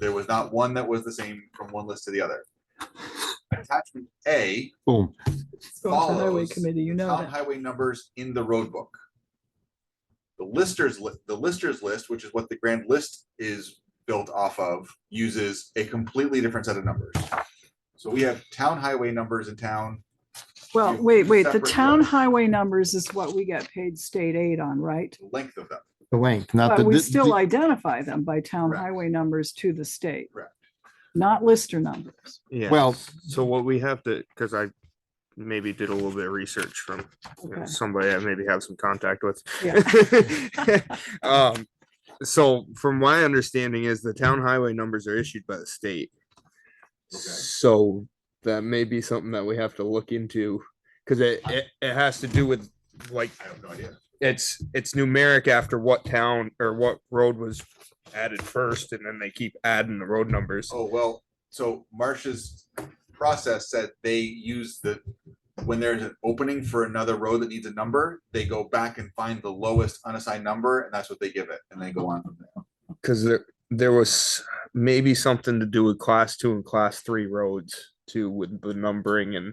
There was not one that was the same from one list to the other. Attachment A, Boom. It's going to highway follows committee, you know town that. highway numbers in the road book. The listers, li- the listers list, which is what the grand list is built off of, uses a completely different set of numbers. So we have town highway numbers in town. Well, you- wait, wait, the separate town roads. highway numbers is what we get paid state aid on, right? the length of them. The length, not the. But we di- di- still identify them by town Correct. highway numbers to the state. Correct. Not lister numbers. Yeah. Well, so what we have to, because I maybe did a little bit of research from you know, Okay. somebody I maybe have some contact with. Yeah. um, so from my understanding is the town highway numbers are issued by the state. Okay. So that may be something that we have to look into because it, it it has to do with like I have no idea. it's it's numeric after what town or what road was added first, and then they keep adding the road numbers. Oh, well, so Marsh's process said they use the, when there's an opening for another road that needs a number, they go back and find the lowest unassigned number and that's what they give it and they go on from there. because there there was maybe something to do with class two and class three roads too with the numbering and I-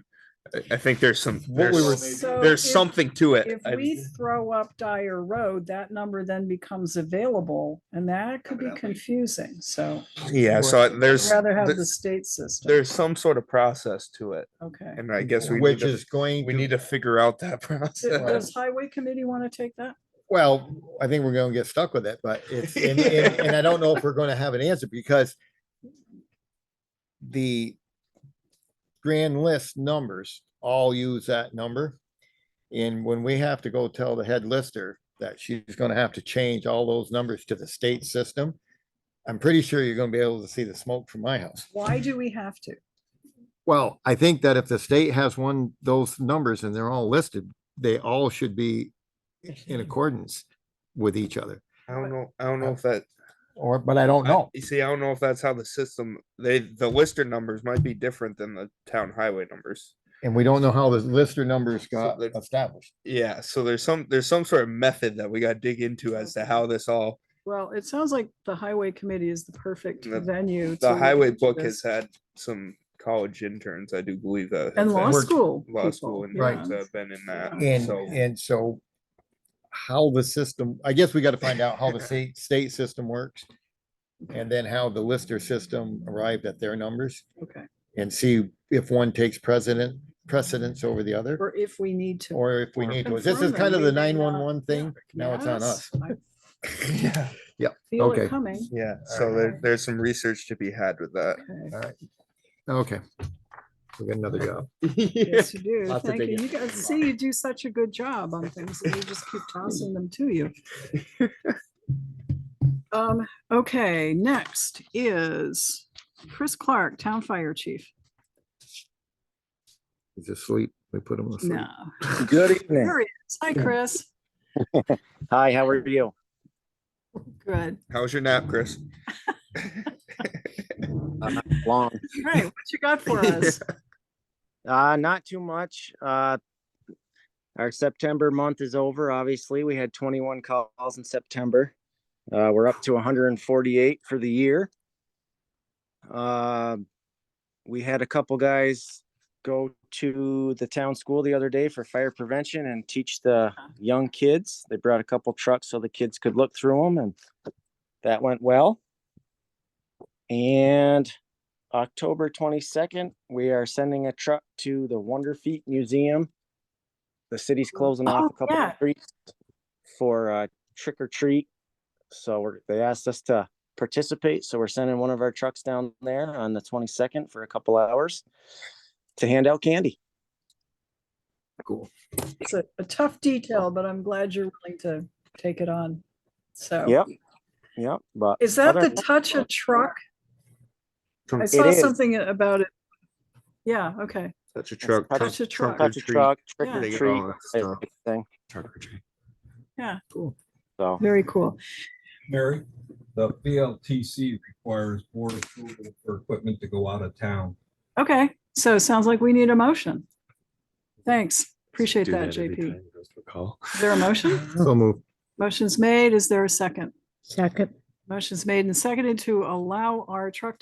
I think there's some What there's, we were- So there's if- something to it. If I- we throw up Dyer Road, that number then becomes available and that could be Evidently. confusing. So yeah, so I- I'd there's rather have th- the state system. there's some sort of process to it, Okay. and I guess we Which need is going, to, we to- need to figure out that process. Does highway committee want to take that? well, I think we're gonna get stuck with it, but it's, and, and- and I don't know if we're gonna have an answer because the grand list numbers all use that number. And when we have to go tell the head lister that she's gonna have to change all those numbers to the state system, I'm pretty sure you're gonna be able to see the smoke from my house. Why do we have to? Well, I think that if the state has one, those numbers and they're all listed, they all should be in accordance with each other, I don't know. I don't know if that. or, but I don't know. You see, I don't know if that's how the system. They the lister numbers might be different than the town highway numbers. And we don't know how the lister numbers got they're- established. Yeah, so there's some there's some sort of method that we got to dig into as to how this all Well, it sounds like the highway committee is the perfect The- venue. to The look highway into book this. has had some college interns, I do believe that. And have law been- school. Law school people, yeah. interns have uh, been in that. And, so- and so how the system, I guess we gotta find out how the state, state system works. And then how the lister system arrived at their numbers Okay, and see if one takes precedent, precedence over the other, or if we need to. or if we need to. This is Confirm them, kind of the maybe not. nine-one-one thing. Now it's on us. Yes, I Yeah, Feel Okay. it coming. yeah, so there, there's some research to be had with that. Okay. Okay. We got another job. Yes, you do. Lots of Thank you. digging. You guys, see, you do such a good job on things. and We just keep tossing them to you. Um, okay, next is Chris Clark, Town Fire Chief. He's asleep. We put him asleep. No. Good evening. There he is. Hi, Chris. Hi, how are you? Good. How's your nap, Chris? Long. All right, what you got for us? Uh, not too much. Uh, our September month is over. Obviously, we had 21 calls in September. Uh, we're up to 148 for the year. Uh, we had a couple guys go to the town school the other day for fire prevention and teach the Uh-huh. young kids. They brought a couple trucks so the kids could look through them, and that went well. And October twenty-second, we are sending a truck to the Wonder Feet Museum. The city's closing Oh, off a couple yeah. of streets for uh trick or treat. So we're, they asked us to participate, so we're sending one of our trucks down there on the twenty-second for a couple hours to hand out candy. It's a a tough detail, but I'm glad you're willing to take it on. So. Yep, yep, but. Is that other the than touch a truck? I Touch saw is. something about it. Yeah, okay. a truck. touch a truck. or Touch a treat, truck, trick Yeah. or they get treat, all that type stuff. of thing, Cool. so. Very cool. Mary, the VLTC requires board approval for equipment to go out of town. Okay, so it sounds like we need a motion. Thanks. Appreciate that, JP. Is there a motion? So move. Motion's made. Is there a second? Second, Motion's made and seconded to allow our truck